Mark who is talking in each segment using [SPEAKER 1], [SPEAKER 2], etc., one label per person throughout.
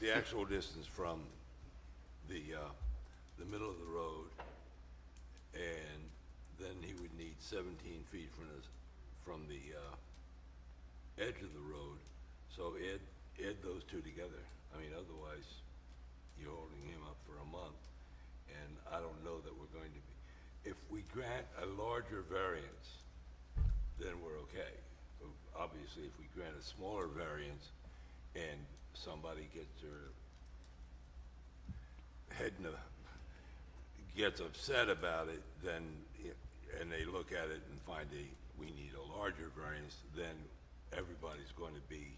[SPEAKER 1] the actual distance from the, uh, the middle of the road, and then he would need seventeen feet from the, from the, uh, edge of the road. So add, add those two together. I mean, otherwise, you're holding him up for a month, and I don't know that we're going to be. If we grant a larger variance, then we're okay. Obviously, if we grant a smaller variance and somebody gets their head in the, gets upset about it, then, it- and they look at it and find a, we need a larger variance, then everybody's going to be,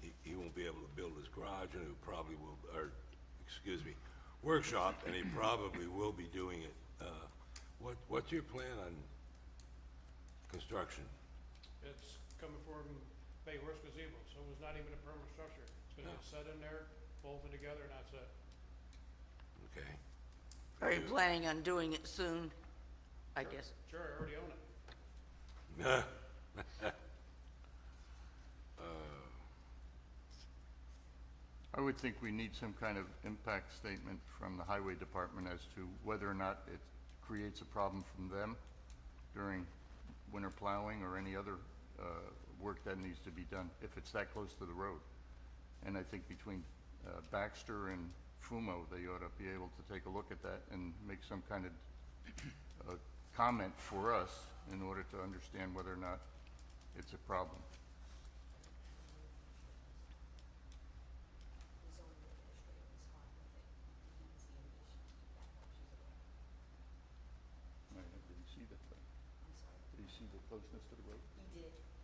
[SPEAKER 1] he, he won't be able to build his garage and he probably will, or, excuse me, workshop, and he probably will be doing it. Uh, What, what's your plan on construction?
[SPEAKER 2] It's coming from Bay Horse Gazebo, so it was not even a permanent structure. It's gonna get set in there, bolted together, and that's it.
[SPEAKER 1] Okay,
[SPEAKER 3] Are you planning on doing it soon? I guess.
[SPEAKER 2] Sure, I already own it.
[SPEAKER 4] I would think we need some kind of impact statement from the highway department as to whether or not it creates a problem from them during winter plowing or any other, uh, work that needs to be done, if it's that close to the road. And I think between, uh, Baxter and Fumo, they ought to be able to take a look at that and make some kind of, uh, comment for us in order to understand whether or not it's a problem. Right, did you see that? Did you see the closeness to the road?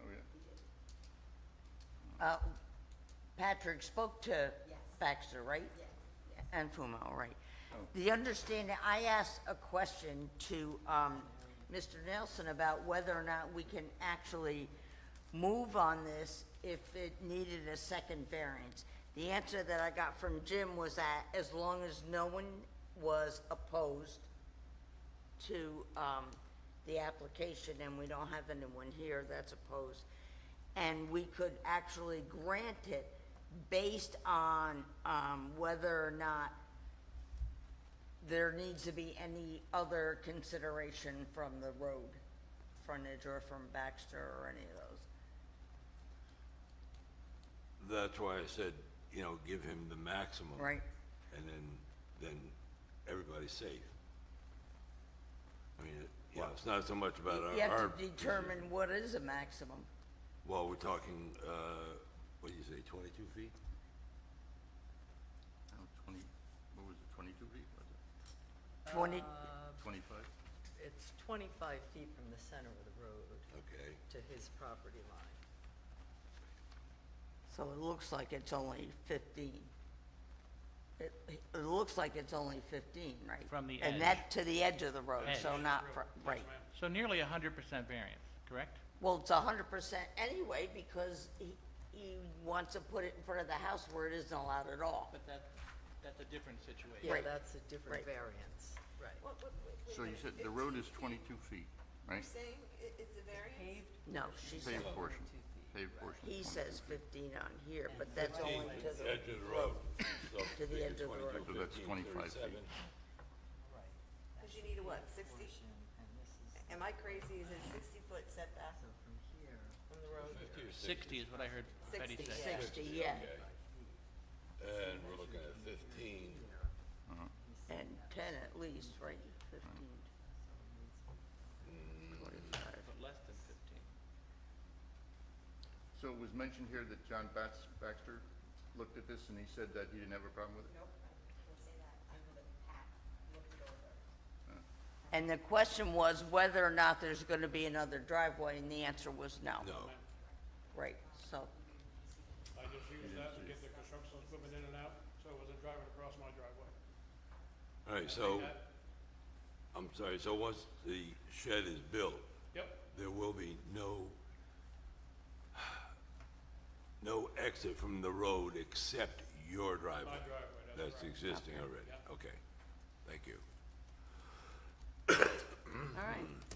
[SPEAKER 4] Oh, yeah.
[SPEAKER 3] Uh, Patrick spoke to Baxter, right? And Fumo, right. The understanding, I asked a question to um, Mr. Nelson about whether or not we can actually move on this if it needed a second variance. The answer that I got from Jim was that as long as no one was opposed to um, the application, and we don't have anyone here that's opposed. And we could actually grant it based on um, whether or not there needs to be any other consideration from the road frontage or from Baxter or any of those.
[SPEAKER 1] that's why I said, you know, give him the maximum.
[SPEAKER 3] Right.
[SPEAKER 1] And then, then everybody's safe. I mean, it- you know, it's not so much about our.
[SPEAKER 3] You
[SPEAKER 1] our-
[SPEAKER 3] have to determine what is a maximum.
[SPEAKER 1] Well, we're talking, uh, what do you say, twenty-two feet?
[SPEAKER 4] Oh, Twenty, what was it, twenty-two feet, was it?
[SPEAKER 3] Twenty,
[SPEAKER 4] Twenty-five?
[SPEAKER 5] It's 25 feet from the center of the road
[SPEAKER 1] Okay,
[SPEAKER 5] to his property line.
[SPEAKER 3] so it looks like it's only fifteen. It, it looks like it's only fifteen, right?
[SPEAKER 6] From the
[SPEAKER 3] And
[SPEAKER 6] edge.
[SPEAKER 3] that to the edge of the road, so
[SPEAKER 6] Edge.
[SPEAKER 3] not fr- right.
[SPEAKER 6] So nearly a hundred percent variance, correct?
[SPEAKER 3] Well, it's a hundred percent anyway, because he, he wants to put it in front of the house where it isn't allowed at all.
[SPEAKER 6] But that, that's a different situation.
[SPEAKER 5] Yeah,
[SPEAKER 3] Right.
[SPEAKER 5] that's a different
[SPEAKER 3] Right.
[SPEAKER 5] variance, right.
[SPEAKER 4] So you said the road is twenty-two feet, right?
[SPEAKER 7] Saying i- it's a variance?
[SPEAKER 3] No, she said,
[SPEAKER 4] Paved portion, paved portion.
[SPEAKER 3] he says fifteen on here, but that's only to the.
[SPEAKER 1] edge of the road. So
[SPEAKER 3] To the
[SPEAKER 1] make it
[SPEAKER 3] edge of the road.
[SPEAKER 1] 22,
[SPEAKER 4] So that's
[SPEAKER 1] 15,
[SPEAKER 4] 25
[SPEAKER 1] 37.
[SPEAKER 4] feet.
[SPEAKER 7] Because you need a what, 60?
[SPEAKER 5] Portion, and this is,
[SPEAKER 7] Am I crazy? Is it 60-foot setback
[SPEAKER 5] so from here,
[SPEAKER 7] from the road?
[SPEAKER 1] Fifty or
[SPEAKER 6] Sixty is what I heard Betty
[SPEAKER 7] Sixty,
[SPEAKER 6] say.
[SPEAKER 7] yeah.
[SPEAKER 3] Sixty, yeah,
[SPEAKER 1] And we're looking at fifteen.
[SPEAKER 3] and ten at least, right, fifteen. Forty-five.
[SPEAKER 6] But less than fifteen.
[SPEAKER 4] So it was mentioned here that John Bats, Baxter looked at this and he said that he didn't have a problem with it?
[SPEAKER 3] And the question was whether or not there's gonna be another driveway, and the answer was no.
[SPEAKER 1] No,
[SPEAKER 3] Right, so,
[SPEAKER 2] I just used that to get the construction equipment in and out, so it wasn't driving across my driveway.
[SPEAKER 1] all right, so,
[SPEAKER 2] That-
[SPEAKER 1] I'm sorry, so once the shed is built,
[SPEAKER 2] Yep,
[SPEAKER 1] there will be no, no exit from the road except your driveway?
[SPEAKER 2] my driveway, that's
[SPEAKER 1] That's
[SPEAKER 2] right.
[SPEAKER 1] existing already, okay, thank you.
[SPEAKER 3] all right,